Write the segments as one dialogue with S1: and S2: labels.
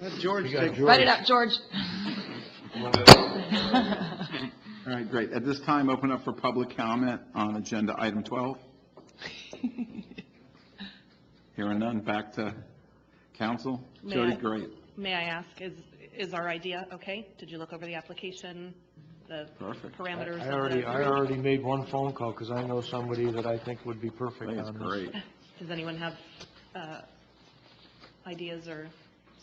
S1: Let George
S2: got
S1: take.
S2: George.
S3: Write it up, George.
S1: All right, great. At this time, open up for public comment on agenda item 12. Hearing none, back to council.
S4: May
S1: Jody,
S4: I-
S1: great.
S4: May I ask, is, is our idea okay? Did you look over the application, the
S1: Perfect.
S4: parameters? of
S2: I
S4: the-
S2: already, I already made one phone call, because I know somebody that I think would be
S1: I
S2: perfect
S1: think it's
S2: on this.
S1: great.
S4: Does anyone have uh, ideas or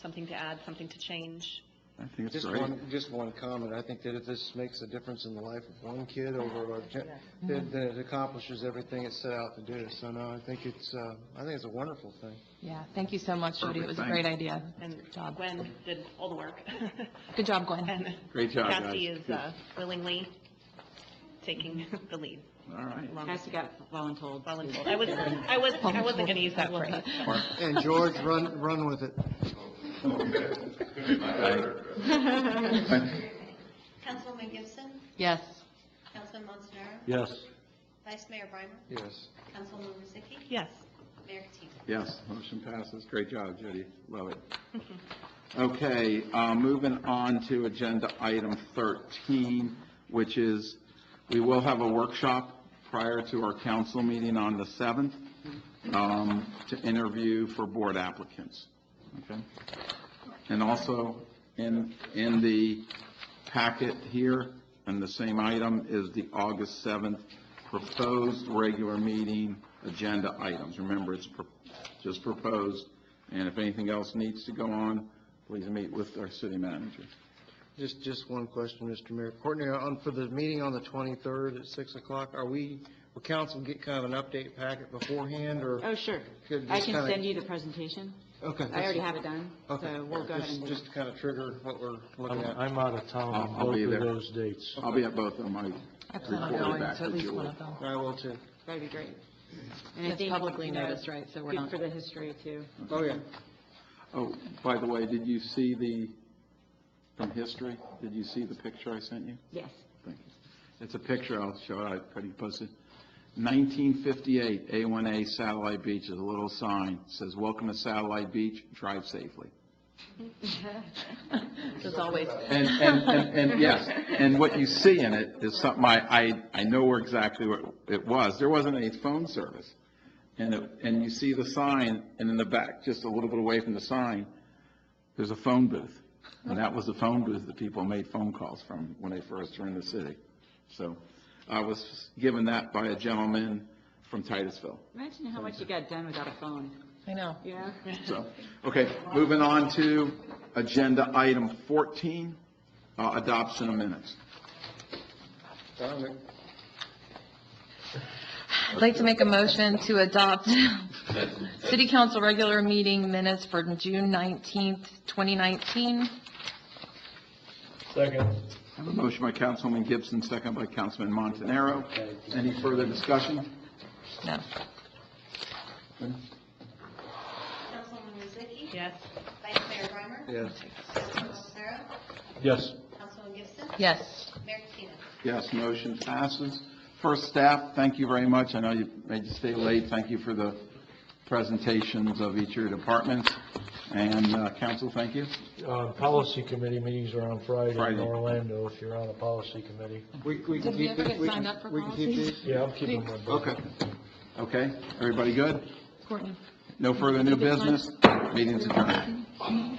S4: something to add, something to change?
S1: I think it's
S2: Just
S1: great.
S2: one, just one comment, I think that if this makes a difference in the life of one kid over, a gen- then then it accomplishes everything it's set out to do, so no, I think it's, uh, I think it's a wonderful thing.
S3: Yeah, thank you so much, Judy. It was a great idea.
S4: And
S3: Good job.
S4: Gwen did all the work.
S3: Good job, Gwen.
S4: And
S1: Great job, guys.
S4: Cassie is uh, willingly taking the lead.
S1: All right.
S4: along with
S5: Cassie got voluntold.
S4: voluntold. I was, I was, I wasn't going to use that word.
S2: And George, run, run with it.
S6: Councilwoman Gibson,
S3: Yes.
S6: Councilman Montanaro,
S2: Yes.
S6: Vice Mayor Brimer,
S2: Yes.
S6: Councilwoman Ruzicki,
S4: Yes.
S6: Mayor Katina.
S1: Yes, motion passes. Great job, Judy. Love it. Okay, uh, moving on to agenda item 13, which is, we will have a workshop prior to our council meeting on the 7th um, to interview for board applicants. Okay? And also, in, in the packet here, and the same item, is the August 7th proposed regular meeting agenda items. Remember, it's pro- just proposed, and if anything else needs to go on, please meet with our city manager.
S2: Just, just one question, Mr. Mayor. Courtney, on, for the meeting on the 23rd at 6 o'clock, are we, will council get kind of an update packet beforehand, or?
S5: Oh, sure.
S2: Could
S5: I
S2: just
S5: can
S2: kinda-
S5: send you the presentation.
S2: Okay.
S5: I already have it done, so we'll go ahead and do Um, it.
S2: Just to kind of trigger what we're looking
S7: I'm,
S2: at.
S7: I'm out of town on
S1: I'll- I'll be
S7: both of
S1: there. Oh.
S7: those dates.
S1: I'll be at both of them. I
S3: I plan on
S1: reported
S3: going
S1: back
S3: to at
S1: to
S3: least
S1: Julie.
S3: one of them.
S2: I will too.
S5: That'd be great. And I
S3: It's
S5: think,
S3: publicly
S5: you know,
S3: noticed, right, so we're
S5: Good
S3: not,
S5: for the history, too.
S2: Oh, yeah.
S1: Oh, by the way, did you see the, from history, did you see the picture I sent you?
S5: Yes.
S1: Thank you. It's a picture, I'll show it, I already posted. 1958, A1A Satellite Beach, there's a little sign, says, "Welcome to Satellite Beach, drive safely."
S3: as always.
S1: And, and, and, and, yes, and what you see in it is something I, I, I know where exactly what it was. There wasn't any phone service. And it, and you see the sign, and in the back, just a little bit away from the sign, there's a phone booth. And that was the phone booth that people made phone calls from when they first were in the city. So I was given that by a gentleman from Titusville.
S5: Imagine how much you got done without a phone,
S3: I know.
S5: yeah?
S1: So, okay, moving on to agenda item 14, uh, adoption of minutes.
S2: Found it.
S3: I'd like to make a motion to adopt city council regular meeting minutes for June 19th, 2019.
S1: I have a motion by Councilwoman Gibson, second by Councilman Montanaro. Any further discussion?
S3: No.
S6: Councilwoman Ruzicki,
S4: Yes.
S6: Vice Mayor Brimer,
S2: Yes.
S6: Councilman Montanaro,
S7: Yes.
S6: Councilwoman Gibson,
S3: Yes.
S6: Mayor Katina.
S1: Yes, motion passes. First staff, thank you very much. I know you made you stay late. Thank you for the presentations of each of your departments. And uh, council, thank you.
S7: Uh, policy committee meetings are on Friday in
S1: Friday.
S7: Orlando, if you're on a policy committee.
S2: We, we can
S3: Did we
S2: keep
S3: ever
S2: it-
S3: get
S2: can-
S3: signed up for
S2: We can keep
S3: policies?
S2: these.
S7: Yeah, I'm keeping my.
S1: Okay. Okay, everybody good?
S3: Courtney?
S1: No further new business? Meeting's adjourned.